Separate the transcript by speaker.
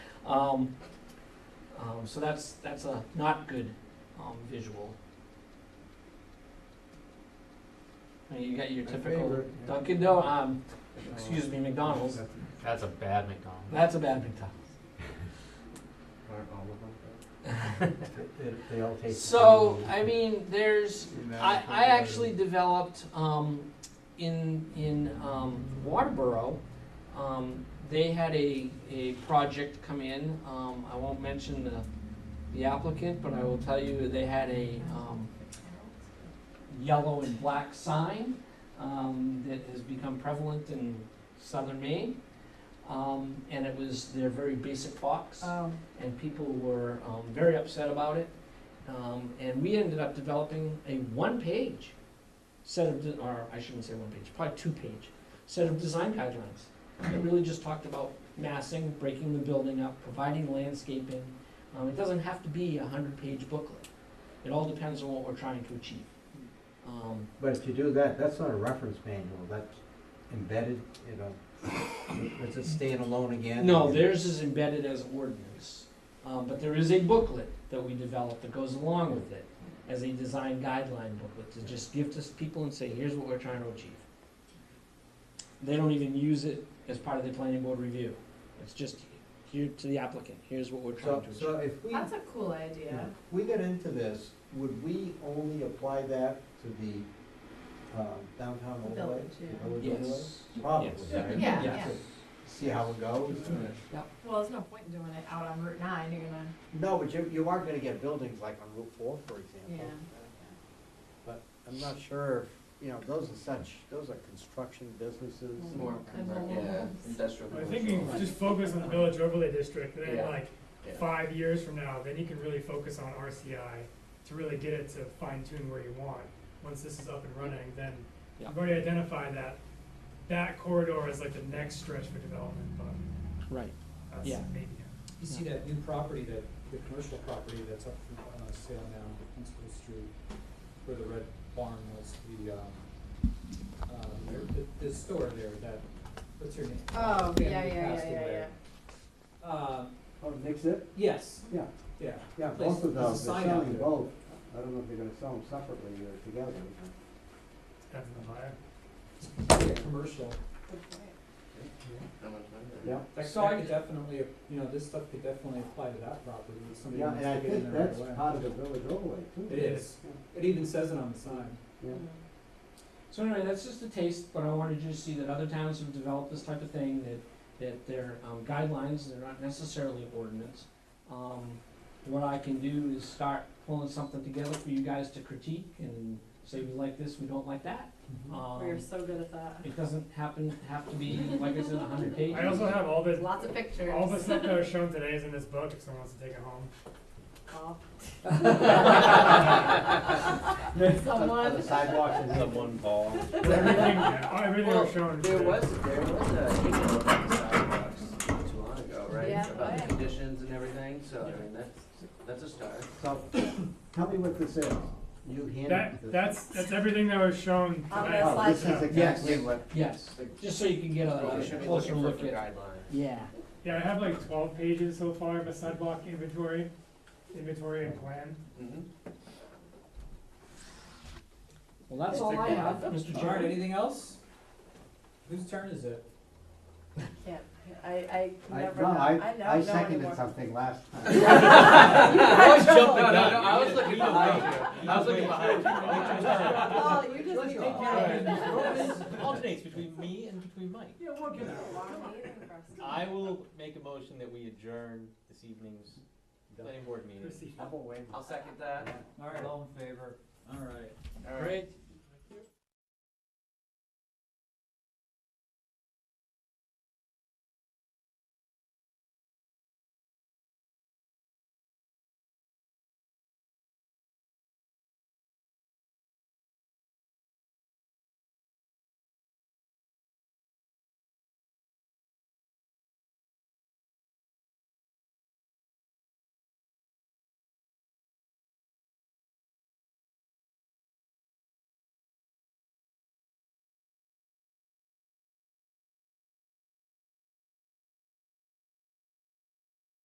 Speaker 1: Um, um, so that's, that's a not good, um, visual. I mean, you got your
Speaker 2: My
Speaker 1: typical
Speaker 2: favorite, yeah.
Speaker 1: Dunkin' Do, um, excuse me, McDonald's,
Speaker 3: That's a bad McDonald's.
Speaker 1: that's a bad McDonald's.
Speaker 2: They- They all taste. the
Speaker 1: So,
Speaker 2: same.
Speaker 1: I mean, there's, I, I actually developed, um, in, in, um, Waterboro, um, they had a, a project come in, um, I won't mention the, the applicant, but I will tell you, they had a, um, yellow and black sign, um, that has become prevalent in southern Maine. Um, and it was their very basic box
Speaker 4: Oh,
Speaker 1: and people were um, very upset about it. Um, and we ended up developing a one-page set of, de- or I shouldn't say one-page, probably two-page set of design guidelines. It really just talked about massing, breaking the building up, providing landscaping. Um, it doesn't have to be a hundred-page booklet. It all depends on what we're trying to achieve. Um,
Speaker 2: But if you do that, that's not a reference manual, that's embedded, you know, it's a standalone again.
Speaker 1: No, theirs is embedded as ordinance, um, but there is a booklet that we developed that goes along with it as a design guideline booklet to just give to people and say, here's what we're trying to achieve. They don't even use it as part of the planning board review. It's just here to the applicant, here's what we're trying
Speaker 2: So,
Speaker 1: to
Speaker 2: so
Speaker 1: achieve.
Speaker 2: if we,
Speaker 4: that's a cool idea.
Speaker 2: we get into this, would we only apply that to the um, downtown overlay?
Speaker 4: Village, yeah.
Speaker 2: The village overlay?
Speaker 1: Yes.
Speaker 2: Probably,
Speaker 1: Yes.
Speaker 2: right?
Speaker 4: Yeah,
Speaker 1: yeah.
Speaker 2: See how it goes?
Speaker 4: Well, there's no point in doing it out on Route nine, you're gonna,
Speaker 2: No, but you, you aren't gonna get buildings like on Route Four, for example.
Speaker 4: Yeah.
Speaker 2: But I'm not sure, if you know, those are such, those are construction businesses.
Speaker 5: Mm-hmm.
Speaker 4: More commercial.
Speaker 6: Yeah, industrial.
Speaker 7: I think you just focus on the village overlay district, and
Speaker 6: Yeah.
Speaker 7: then like,
Speaker 6: Yeah.
Speaker 7: five years from now, then you can really focus on RCI to really get it to fine tune where you want. Once this is up and running, then
Speaker 1: Yeah.
Speaker 7: you've already identified that, that corridor is like the next stretch for development, but
Speaker 1: Right. Yeah.
Speaker 7: that's maybe.
Speaker 5: You see that new property, that, the commercial property that's up for uh, sale now on School Street, where the red barn was, the, um, uh, the, the store there, that, what's her name?
Speaker 4: oh, yeah, yeah,
Speaker 5: Family
Speaker 4: yeah,
Speaker 5: passed
Speaker 4: yeah, yeah.
Speaker 5: away. Uh,
Speaker 2: Oh, Nix it?
Speaker 5: yes,
Speaker 2: Yeah,
Speaker 5: yeah.
Speaker 2: yeah,
Speaker 5: Place-
Speaker 2: both of
Speaker 5: there's a
Speaker 2: those, they're
Speaker 5: sign out
Speaker 2: selling
Speaker 5: there.
Speaker 2: both. I don't know if they're gonna sell them separately or together.
Speaker 7: Depends on the buyer.
Speaker 5: Yeah, Commercial.
Speaker 4: Good point.
Speaker 2: Yeah,
Speaker 5: That
Speaker 1: So I-
Speaker 5: that could definitely, you know, this stuff could definitely apply to that property if somebody
Speaker 2: yeah,
Speaker 5: wants
Speaker 2: and
Speaker 5: to
Speaker 2: I
Speaker 5: get in
Speaker 2: think
Speaker 5: there
Speaker 2: that's
Speaker 5: right away.
Speaker 2: part of the village overlay too.
Speaker 5: It is. It even says it on the sign.
Speaker 2: Yeah.
Speaker 1: So anyway, that's just a taste, but I wanted you to see that other towns have developed this type of thing, that, that their um, guidelines, they're not necessarily ordinance. Um, what I can do is start pulling something together for you guys to critique and say we like this, we don't like that.
Speaker 4: We are
Speaker 1: Um,
Speaker 4: so good at that.
Speaker 1: it doesn't happen, have to be, like I said, a hundred pages.
Speaker 7: I also have all the,
Speaker 4: Lots of pictures.
Speaker 7: all the stuff that was shown today is in this book, if someone wants to take it home.
Speaker 4: Well,
Speaker 2: On the
Speaker 4: Someone,
Speaker 2: sidewalks and.
Speaker 3: one ball.
Speaker 7: Everything, everything
Speaker 6: Well,
Speaker 7: was shown
Speaker 6: There
Speaker 7: today.
Speaker 6: was, there was a email about the sidewalks not too long ago, right?
Speaker 4: Yeah.
Speaker 6: About
Speaker 4: Yeah.
Speaker 6: the conditions and everything, so I mean, that's, that's a start.
Speaker 2: So, tell me what this is. You handed this.
Speaker 7: That, that's, that's everything that was shown
Speaker 4: On
Speaker 7: today.
Speaker 4: the
Speaker 2: Oh, this is
Speaker 7: Yeah.
Speaker 2: exactly what,
Speaker 1: Yes, just so you can
Speaker 8: Uh,
Speaker 1: get a
Speaker 6: We
Speaker 1: a
Speaker 6: should be
Speaker 1: closer
Speaker 6: looking for
Speaker 1: look
Speaker 6: for
Speaker 1: at.
Speaker 6: guidelines.
Speaker 1: Yeah.
Speaker 7: Yeah, I have like twelve pages so far of a sidewalk inventory, inventory and plan.
Speaker 6: Mhm.
Speaker 1: Well, that's all I have, Mr.
Speaker 5: All right,
Speaker 1: Chairman.
Speaker 5: anything else? Whose turn is it?
Speaker 4: yeah, I, I
Speaker 2: I,
Speaker 4: never
Speaker 2: no,
Speaker 4: know, I
Speaker 2: I,
Speaker 4: don't know
Speaker 2: I seconded
Speaker 4: anymore.
Speaker 2: something last time.
Speaker 4: I was
Speaker 6: No, no, no, I was looking behind you. I was looking behind you.
Speaker 4: Paul, you just need to
Speaker 7: Alright.
Speaker 8: alternates between me and between Mike.
Speaker 5: Yeah, we'll get it.
Speaker 8: I will make a motion that we adjourn this evening's planning board meeting.
Speaker 7: Proceed.
Speaker 6: I'll second that.
Speaker 5: All right, all in favor? All right.
Speaker 6: All right.
Speaker 1: Great,